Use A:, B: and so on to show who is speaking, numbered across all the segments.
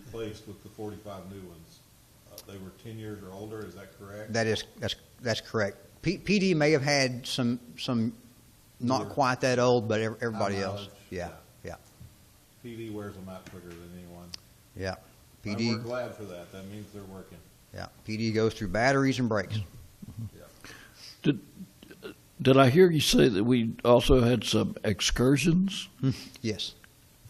A: replaced with the forty-five new ones. Uh, They were ten years or older, is that correct?
B: That is, that's, that's correct. P, PD may have had some, some not
A: Newer.
B: quite that old, but ev- everybody
A: High
B: else.
A: mileage,
B: Yeah, yeah,
A: PD wears them out quicker than anyone.
B: yeah.
A: And we're
B: PD,
A: glad for that. That means they're working.
B: yeah, PD goes through batteries and brakes.
C: Did I hear you say that we also had some excursions?
B: Yes.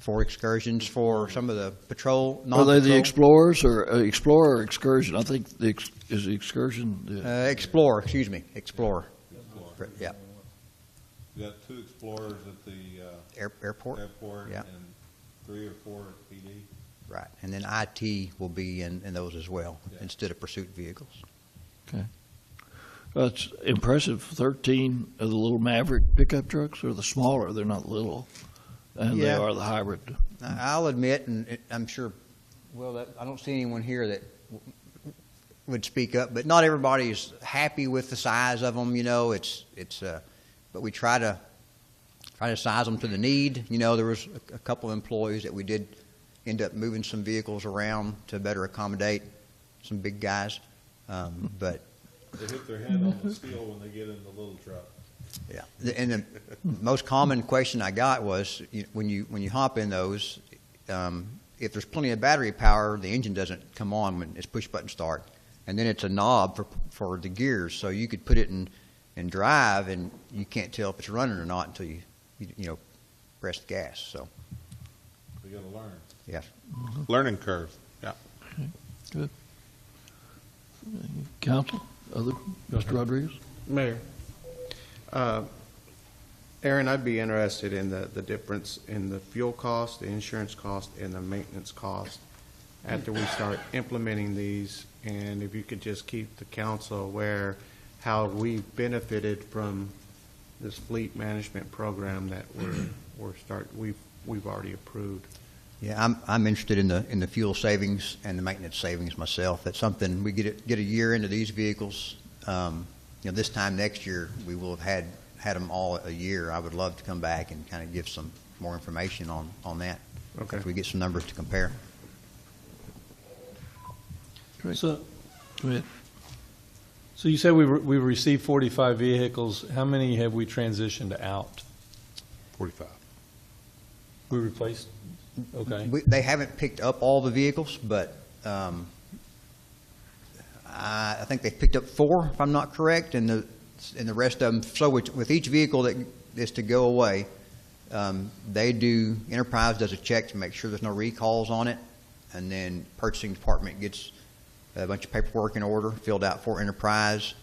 B: For excursions, for some of the patrol,
C: Are they the
B: non-patrol.
C: explorers or uh, explorer or excursion? I think the ex- is the excursion. The,
B: Uh, Explorer, excuse me, Explorer,
A: Explorer.
B: yeah,
A: We got two explorers at the uh,
B: air- airport,
A: airport
B: yeah.
A: and three or four at PD.
B: right. And then IT will be in, in those as well,
A: Yeah.
B: instead of pursuit vehicles.
C: that's impressive. Thirteen of the little Maverick pickup trucks are the smaller. They're not little, and
B: Yeah.
C: they are the hybrid.
B: I- I'll admit, and it- I'm sure, well, that, I don't see anyone here that w- would speak up, but not everybody is happy with the size of them, you know, it's, it's, uh, but we try to, try to size them to the need. You know, there was a, a couple of employees that we did end up moving some vehicles around to better accommodate some big guys, um, but
A: They hit their head on the steel when they get in the little truck.
B: Yeah, The- and the most common question I got was you- when you when you hop in those, um, if there's plenty of battery power, the engine doesn't come on when it's push button start, and then it's a knob for for the gears, so you could put it in in drive, and you can't tell if it's running or not until you you, you know press the gas. So
A: They gotta learn.
B: yeah,
A: Learning curve.
C: Council, other Mr. Rodriguez.
D: Mayor, uh, Aaron, I'd be interested in the, the difference in the fuel cost, the insurance cost, and the maintenance cost after we start implementing these, and if you could just keep the council aware how we benefited from this fleet management program that we're, we're start, we've, we've already approved.
B: yeah, I'm I'm interested in the in the fuel savings and the maintenance savings myself. That's something we get it, get a year into these vehicles. Um, you know, this time next year, we will have had, had them all a year. I would love to come back and kind of give some more information on, on that.
D: Okay.
B: If we get some numbers to compare.
E: So,
C: Go ahead.
E: so you said we re- we received 45 vehicles. How many have we transitioned out?
A: Forty-five.
E: We replaced? Okay.
B: We, they haven't picked up all the vehicles, but, um, I, I think they've picked up four, if I'm not correct, and the, and the rest of them, so with, with each vehicle that is to go away, um, they do, Enterprise does a check to make sure there's no recalls on it, and then purchasing department gets a bunch of paperwork in order, filled out for Enterprise,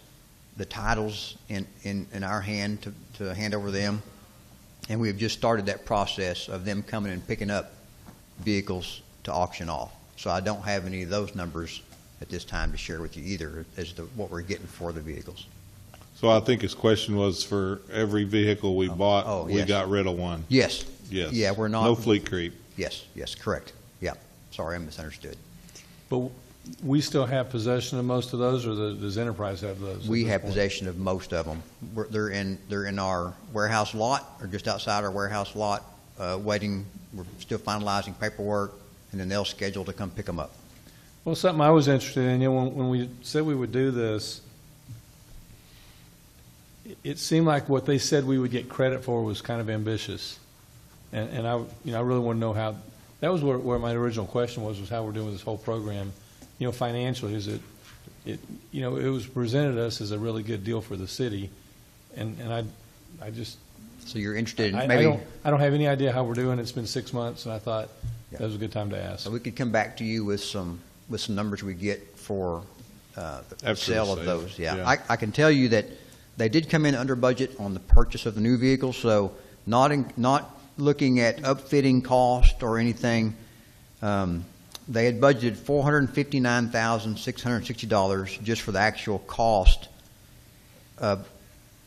B: the titles in, in, in our hand to, to hand over them. And we have just started that process of them coming and picking up vehicles to auction off. So I don't have any of those numbers at this time to share with you either, as to what we're getting for the vehicles.
F: So I think his question was for every vehicle we
B: oh,
F: bought, we
B: yes.
F: got rid of one.
B: Yes,
F: Yes.
B: Yeah, we're not-
F: No fleet creep.
B: yes, yes, correct. Yeah, sorry, I misunderstood.
E: But we still have possession of most of those, or the- does Enterprise have those? at
B: We
E: this
B: have
E: point?
B: possession of most of them. We're, they're in, they're in our warehouse lot, or just outside our warehouse lot, uh, waiting, we're still finalizing paperwork, and then they'll schedule to come pick them up.
E: Well, something I was interested in, you know, when, when we said we would do this, it- it seemed like what they said we would get credit for was kind of ambitious. And, and I, you know, I really want to know how, that was where, where my original question was, was how we're doing this whole program. You know, financially, is it, it, you know, it was presented us as a really good deal for the city. And, and I, I just,
B: So you're interested
E: I,
B: in
E: I
B: maybe,
E: don't, I don't have any idea how we're doing. It's been six months and I thought
B: Yeah.
E: that was a good time to ask.
B: so we could come back to you with some, with some numbers we get for, uh, the
F: After
B: sale
F: the
B: of
F: sale,
B: those, yeah.
F: yeah.
B: I, I can tell you that they did come in under budget on the purchase of the new vehicle, so not in, not looking at upfitting cost or anything. Um, they had budgeted four hundred and fifty-nine thousand, six hundred and sixty dollars just for the actual cost of,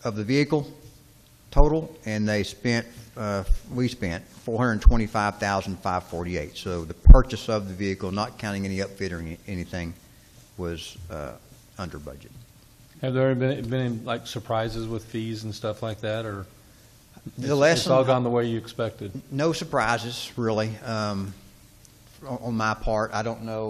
B: of the vehicle total, and they spent, uh, we spent four hundred and twenty-five thousand, five forty-eight. So the purchase of the vehicle, not counting any upfit or any- anything, was, uh, under budget.
E: Have there been, been like surprises with fees and stuff like that, or
B: The
E: it's- it's
B: lesson-
E: all gone the way you expected?
B: No surprises, really. Um, on on my part. I don't know